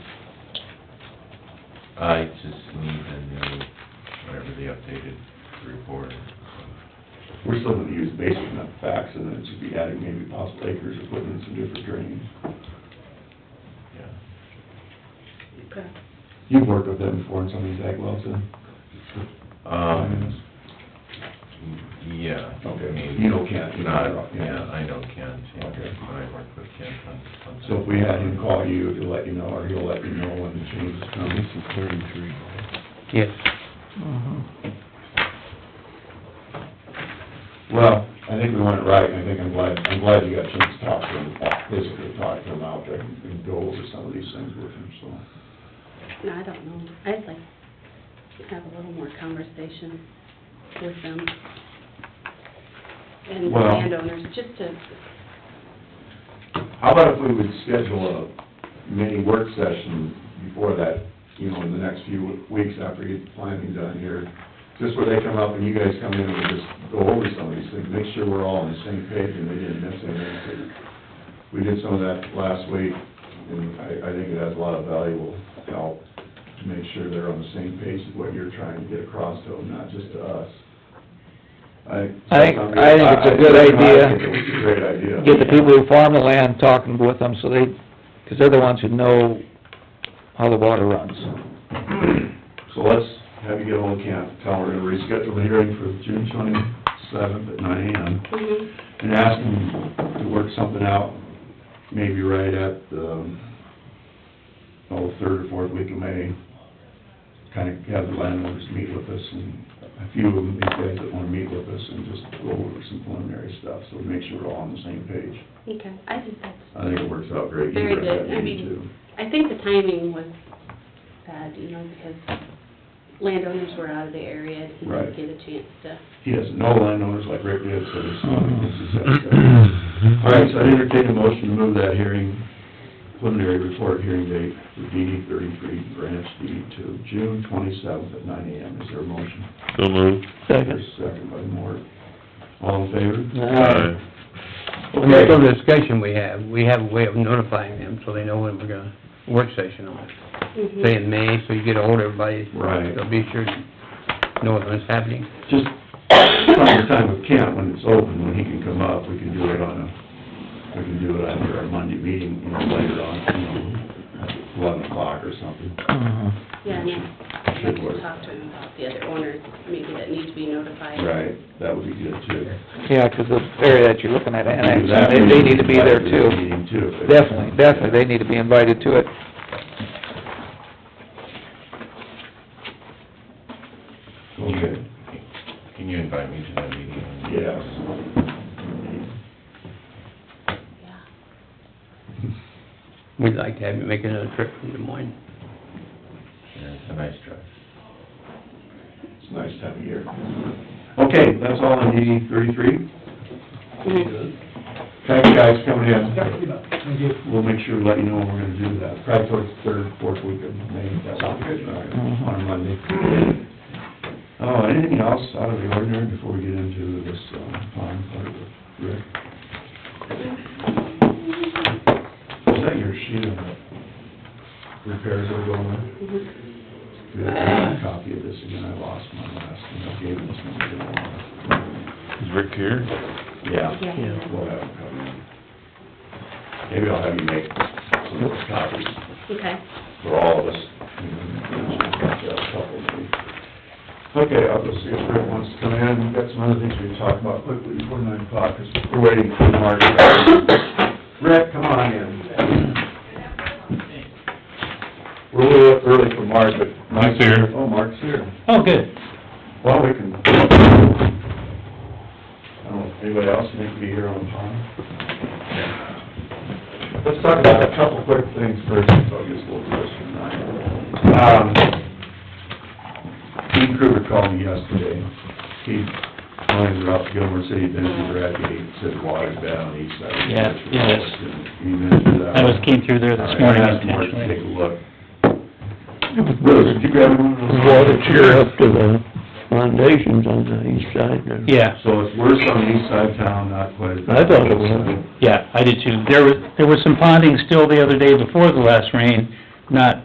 I just need the new, whatever the updated report. is. We're still gonna use basic enough facts, and then it should be adding maybe possible acres or putting in some different drains. Yeah. Okay. You've worked with them before in some of these ag wells, then? Um, yeah. Okay. maybe. You know Kent. Not, yeah, I know Kent, yeah, Okay. but I work with Kent on, on. So if we had him call you to let you know, or he'll let you know when the changes come. thirty-three. Yes. Mm-hmm. Well, I think we went right, and I think I'm glad, I'm glad you got a chance to talk to him, basically talk to him out there and and go over some of these things with him, so. No, I don't know. I'd like to have a little more conversation with them and the Well- landowners, just to, How about if we would schedule a mini work session before that, you know, in the next few weeks after we get the planning done here? Just where they come up and you guys come in and we just go over some of these things, make sure we're all on the same page and we didn't miss anything. We did some of that last week, and I, I think it has a lot of valuable help to make sure they're on the same page with what you're trying to get across to them, not just to us. I. I think- I think it's a good idea. I think it's a great idea. Get the people who farm the land talking with them, so they, because they're the ones who know how the water runs. So let's have you get on camp, tell her to reschedule the hearing for June twenty-seventh at nine AM, Mhm. and ask them to work something out, maybe right at the, oh, third or fourth week of May. Kind of have the landowners meet with us, and a few of them, these guys that wanna meet with us, and just go over some preliminary stuff, so we make sure we're all on the same page. okay, I think that's, I think it works out great. You Very were at that good. I meeting, mean- too. I think the timing was bad, you know, because landowners were out of the area and he Right. didn't get a chance to. He doesn't know landowners like Rick did, so it's not, it's just... All right, so I entertain a motion to move that hearing, preliminary report hearing date for DD thirty-three, branch DD two, June twenty-seventh at nine AM. Is there a motion? So moved. Second. Second by Moore. All in favor? Aye. And that's some discussion we have, we have a way of notifying them, so they know when we're gonna, work session on it. Mhm. Say in May, so you get ahold of everybody. Right. They'll be sure to know when it's happening. Just find the time with Kent when it's open, when he can come up, we can do it on a, we can do it after our Monday meeting, you know, later on, you know, eleven o'clock or something. Yeah, and I'd like Should work. to talk to him about the other owners, maybe that need to be notified. Right, that would be good too. Yeah, because the area that you're looking at annexing, That they, they need to be there meeting, that too. meeting too, if they- Definitely, definitely, they need to be invited to it. Okay. Can you invite me to that meeting? Yes. Yeah. We'd like to have you make another trip from Des Moines. Yeah, it's a nice drive. It's a nice time of year. Okay, that's all on DD thirty-three. Mm-hmm. Mm-hmm. Thank you guys for coming in. We'll make sure to let you know when we're gonna do that, probably towards the third, fourth week of May, that sounds good, all right, on a Monday. Oh, anything else out of the ordinary before we get into this, um, pond part of it, Rick? Is that your sheet of repairs that are going on? Mhm. Do you have a copy of this again? I lost my last, one. I gave this one to Laura. Is Rick here? Yeah. Yeah. We'll have it come in. Maybe I'll have you make some of those copies Okay. for all of us. Okay, I'll go see if Rick wants to come in. We've got some other things we can talk about quickly before nine o'clock, because we're waiting for Mark. Rick, come on in. We're a little early for Mark, but Mark's He's here. Oh, Mark's here. Oh, good. Well, we can, I don't know, anybody else need to be here on time? Let's talk about a couple quick things first, so I'll get a little question tonight. Dean Um, Kruger called me yesterday. He, mines are up Gilmore City, been to Bradgate, said water's bad on the east side. of the Yeah, church. yeah, that's- He mentioned that. I was, came through there this morning All right, I asked Mark to intentionally. Take a look. Bruce, did you grab one of Mm-hmm. those? up to the foundations on the east side. Yeah, So it's worse on the east side of town, not quite as bad. I thought it was. yeah, I did too. There was, there was some ponding still the other day before the last rain, not